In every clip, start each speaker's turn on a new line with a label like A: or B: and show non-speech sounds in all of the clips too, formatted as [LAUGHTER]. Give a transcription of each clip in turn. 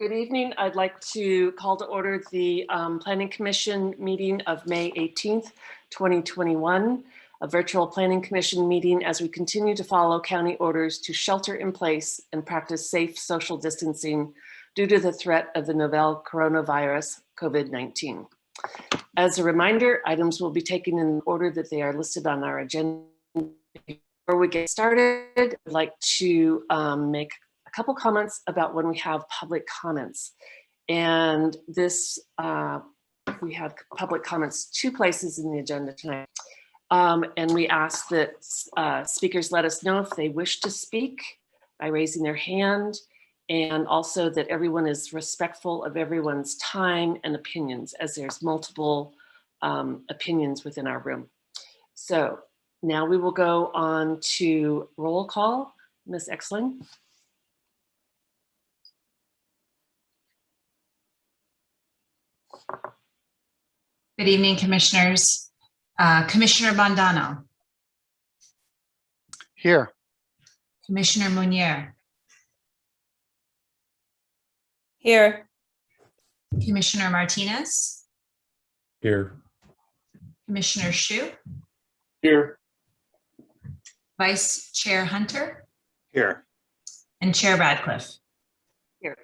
A: Good evening. I'd like to call to order the um, Planning Commission meeting of May 18th, 2021, a virtual Planning Commission meeting as we continue to follow county orders to shelter in place and practice safe social distancing due to the threat of the novel coronavirus, COVID-19. As a reminder, items will be taken in order that they are listed on our agenda. Before we get started, I'd like to um, make a couple comments about when we have public comments. And this, uh, we have public comments two places in the agenda tonight. Um, And we ask that uh, speakers let us know if they wish to speak by raising their hand. And also that everyone is respectful of everyone's time and opinions as there's multiple um, opinions within our room. So now we will go on to roll call. Ms. Exling?
B: Good evening, Commissioners. Uh, Commissioner Bandano,
C: Here.
B: Commissioner Munier,
D: Here,
B: Commissioner Martinez,
E: Here.
B: Commissioner Shu,
E: Here.
B: Vice Chair Hunter,
C: Here.
B: and Chair Radcliffe.
A: Here.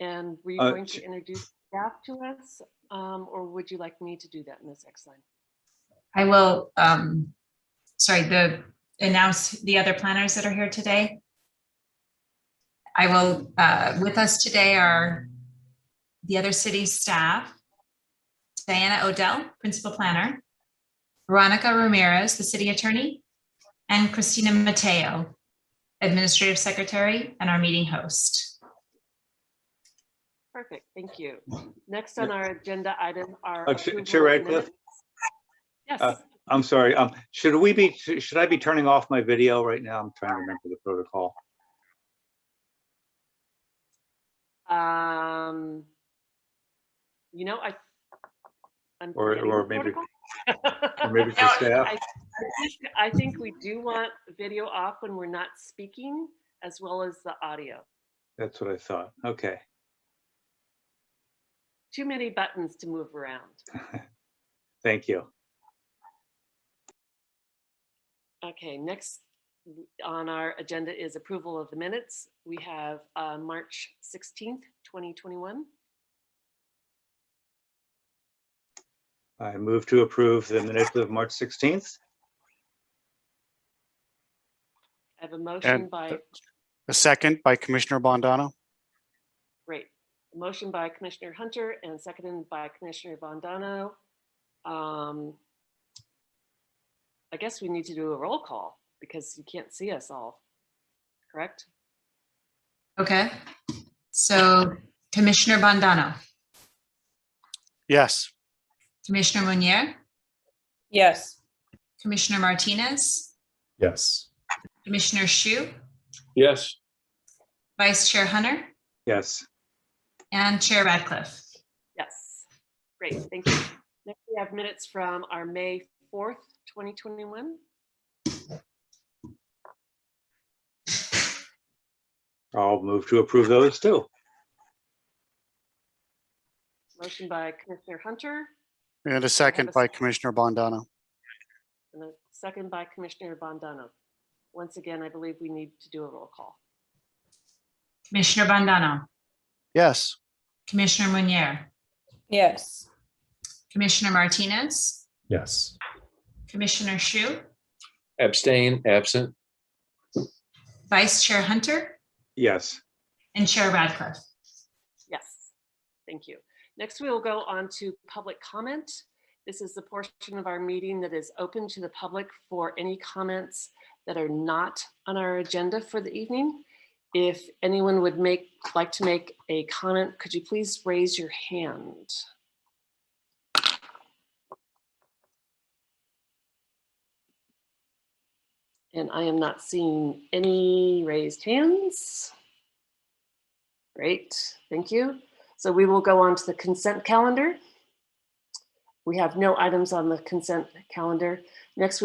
A: And were you
F: Uh,
A: going to
F: j-
A: introduce staff to us, um, or would you like me to do that, Ms. Exline?
B: I will, um, sorry, the, announce the other planners that are here today. I will, uh, with us today are the other city staff. Diana Odell, Principal Planner. Veronica Ramirez, the City Attorney. And Christina Mateo, Administrative Secretary and our meeting host.
A: Perfect, thank you. Next on our agenda item are.
F: Uh, Ch-
A: approval
F: Chair
A: of
F: Radcliffe?
A: minutes. Yes,
F: Uh, I'm sorry, um, should we be, should I be turning off my video right now? I'm trying to remember the protocol.
A: um, you know, I. I'm
F: Or-
A: forgetting
F: or
A: the
F: maybe-
A: protocol.
F: Or Maybe
A: [LAUGHS]
F: for
A: No,
F: staff?
A: I think- I think we do want video off when we're not speaking, as well as the audio.
F: That's what I thought. Okay.
A: Too many buttons to move around.
F: Thank you.
A: Okay, next on our agenda is approval of the minutes. We have uh, March 16th, 2021.
F: I move to approve the minutes of March 16th.
A: I have a motion
C: And-
A: by,
C: A second by Commissioner Bondano.
A: great, a motion by Commissioner Hunter and seconded by Commissioner Bondano. Um, I guess we need to do a roll call because you can't see us all, correct?
B: Okay, so Commissioner Bandano,
C: Yes.
B: Commissioner Munier,
D: yes,
B: Commissioner Martinez,
E: Yes.
B: Commissioner Shu,
E: Yes.
B: Vice Chair Hunter,
F: Yes,
B: And Chair Radcliffe.
A: Yes, great, thank you. Next, we have minutes from our May 4th, 2021.
F: I'll move to approve those too.
A: Motion by Commissioner Hunter
C: And a
A: a
C: second by
A: second.
C: Commissioner Bondano.
A: and a second by Commissioner Bondano. Once again, I believe we need to do a roll call.
B: Commissioner Bandano,
C: Yes.
B: Commissioner Munier,
D: yes,
B: Commissioner Martinez,
E: Yes.
B: Commissioner Shu,
G: Abstain, absent,
B: Vice Chair Hunter,
F: Yes,
B: and Chair Radcliffe.
A: Yes, thank you. Next, we will go on to public comment. This is the portion of our meeting that is open to the public for any comments that are not on our agenda for the evening. If anyone would make, like to make a comment, could you please raise your hand? And I am not seeing any raised hands. Great, thank you. So we will go on to the consent calendar. We have no items on the consent calendar. Next,